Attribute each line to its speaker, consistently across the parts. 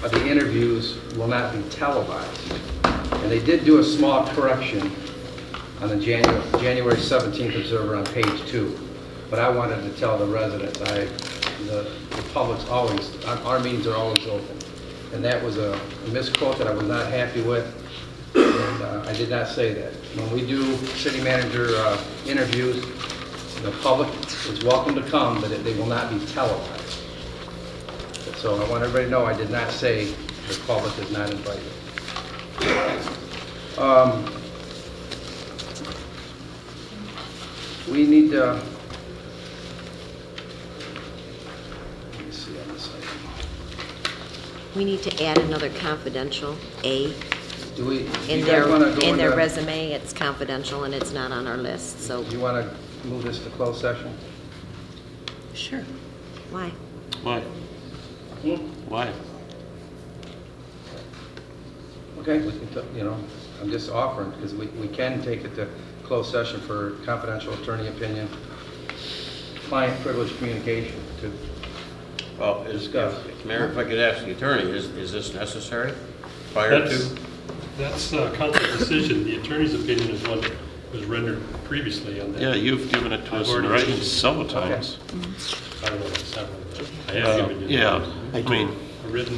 Speaker 1: but the interviews will not be televised. And they did do a small correction on the January, January 17th Observer on page two. But I wanted to tell the residents, I, the, the public's always, our, our meetings are always open. And that was a misquote that I was not happy with. And uh, I did not say that. When we do city manager uh, interviews, the public is welcome to come, but it- they will not be televised. So I want everybody to know, I did not say the public is not invited. Um, We need to... Let me see on this item.
Speaker 2: We need to add another confidential A
Speaker 1: Do we,
Speaker 2: in
Speaker 1: you guys
Speaker 2: their,
Speaker 1: want to go
Speaker 2: in their
Speaker 1: into-
Speaker 2: resume. It's confidential and it's not on our list, so,
Speaker 1: You want to move this to closed session?
Speaker 2: sure. Why?
Speaker 3: Why? Why?
Speaker 1: Okay, we can, t- you know, I'm just offering, because we, we can take it to closed session for confidential attorney opinion, client privilege communication to,
Speaker 4: Well, is,
Speaker 1: Discuss.
Speaker 4: if- Mayor, if I could ask the attorney, is, is this necessary prior
Speaker 5: That's,
Speaker 4: to?
Speaker 5: that's uh, council decision. The attorney's opinion is what was rendered previously on
Speaker 3: Yeah,
Speaker 5: that.
Speaker 3: you've given it to us in
Speaker 5: I've already
Speaker 3: writing
Speaker 5: changed it.
Speaker 3: several times.
Speaker 5: I don't know, it's not really that. I have given you.
Speaker 3: Yeah, I mean,
Speaker 5: A written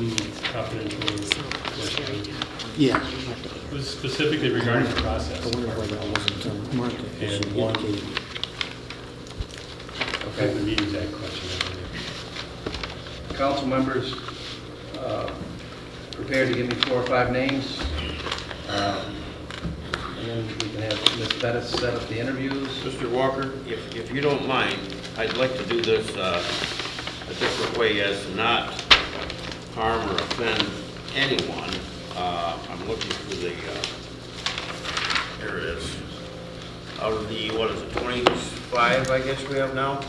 Speaker 5: confidential.
Speaker 2: So, Sherry,
Speaker 5: question.
Speaker 6: Yeah,
Speaker 2: you have to add.
Speaker 5: It was specifically regarding the process.
Speaker 6: I wonder why that wasn't uh, marked. It
Speaker 5: And
Speaker 6: should
Speaker 5: one-
Speaker 6: indicate
Speaker 5: The
Speaker 1: okay?
Speaker 5: meetings act question. I believe.
Speaker 1: Council members, uh, prepare to give me four or five names. um, And then we can have Ms. Bettis set up the interviews.
Speaker 4: Mr. Walker, if, if you don't mind, I'd like to do this uh, a different way as to not harm or offend anyone. Uh, I'm looking for the, uh, here it is. Out of the, what is it, 25, I guess we have now?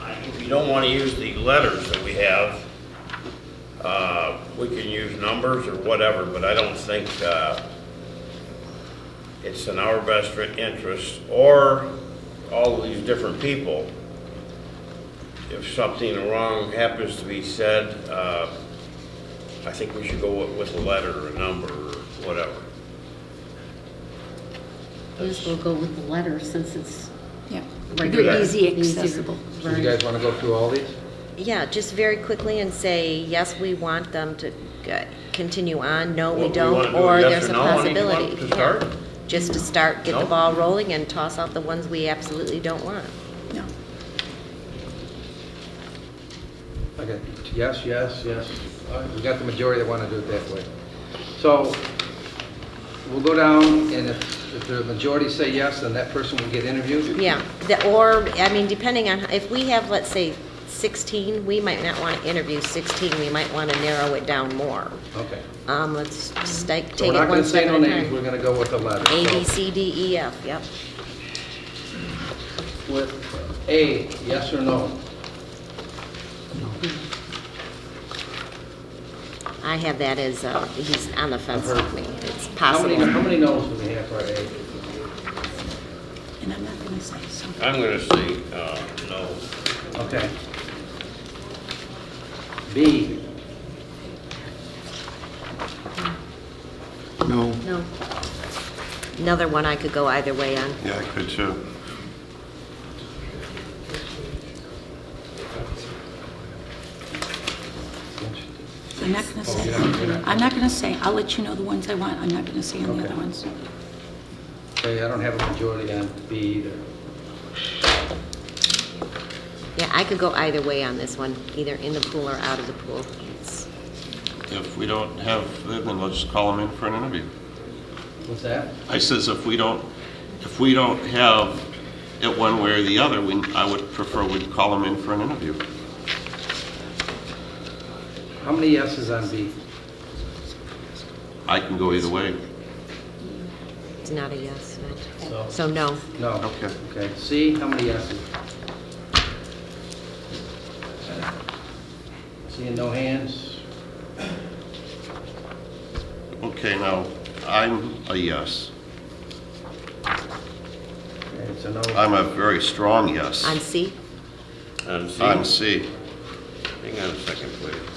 Speaker 4: I- If you don't want to use the letters that we have, uh, we can use numbers or whatever, but I don't think uh, it's in our best interest, or all of these different people, if something wrong happens to be said, uh, I think we should go with- with a letter or a number or whatever.
Speaker 7: Yes, we'll go with the letter since it's
Speaker 8: Yeah.
Speaker 7: regular.
Speaker 4: They're
Speaker 8: easy
Speaker 7: easier.
Speaker 8: accessible.
Speaker 1: So you guys want to go through all these?
Speaker 2: Yeah, just very quickly and say, yes, we want them to uh, continue on, no,
Speaker 4: What,
Speaker 2: we
Speaker 4: we wanna
Speaker 2: don't,
Speaker 4: do
Speaker 2: or
Speaker 4: yes
Speaker 2: there's
Speaker 4: or
Speaker 2: a
Speaker 4: no on each one
Speaker 2: possibility.
Speaker 4: to
Speaker 2: Yeah.
Speaker 4: start?
Speaker 2: Just to start, get the
Speaker 4: No?
Speaker 2: ball rolling and toss out the ones we absolutely don't want.
Speaker 8: No.
Speaker 1: Okay, yes, yes, yes. All right, We got the majority that want to do it that way. So we'll go down, and if, if the majority say yes, then that person will get interviewed.
Speaker 2: Yeah, the, or, I mean, depending on, if we have, let's say, 16, we might not want to interview 16, we might want to narrow it down more.
Speaker 1: Okay.
Speaker 2: Um, let's stake,
Speaker 1: So we're not
Speaker 2: take it
Speaker 1: going
Speaker 2: one
Speaker 1: to say
Speaker 2: step
Speaker 1: no
Speaker 2: at a
Speaker 1: names, we're
Speaker 2: time.
Speaker 1: going to go with the letter.
Speaker 2: A,
Speaker 1: So
Speaker 2: B, C, D, E, F, yep.
Speaker 1: With A, yes or no?
Speaker 2: I have that as, uh, he's on the fence with me, it's
Speaker 1: How many, how
Speaker 2: possible.
Speaker 1: many no's do we have for A?
Speaker 8: And I'm not going to say so.
Speaker 4: I'm going to say, uh, no.
Speaker 1: Okay. B,
Speaker 6: No,
Speaker 2: No. Another one I could go either way on.
Speaker 3: yeah, I could too.
Speaker 8: I'm not going to say.
Speaker 1: you're not- you're not-
Speaker 8: I'm not going to say. I'll let you know the ones I want. I'm not going to say on the
Speaker 1: Okay.
Speaker 8: other ones.
Speaker 1: okay, I don't have a majority on B either.
Speaker 2: Yeah, I could go either way on this one, either in the pool or out of the pool. It's-
Speaker 3: If we don't have, them, then let's call them in for an interview.
Speaker 1: What's that?
Speaker 3: I says if we don't, if we don't have it one way or the other, we, I would prefer we'd call them in for an interview.
Speaker 1: How many yeses on B?
Speaker 3: I can go either way.
Speaker 2: It's not a yes,
Speaker 1: So-
Speaker 2: no. So no.
Speaker 1: No.
Speaker 3: Okay.
Speaker 1: Okay, C, how many yeses? Seeing no hands?
Speaker 3: Okay, now, I'm a yes.
Speaker 1: Okay, it's a no.
Speaker 3: I'm a very strong yes.
Speaker 2: On C?
Speaker 4: And see,
Speaker 3: On C.
Speaker 4: hang on a second, please.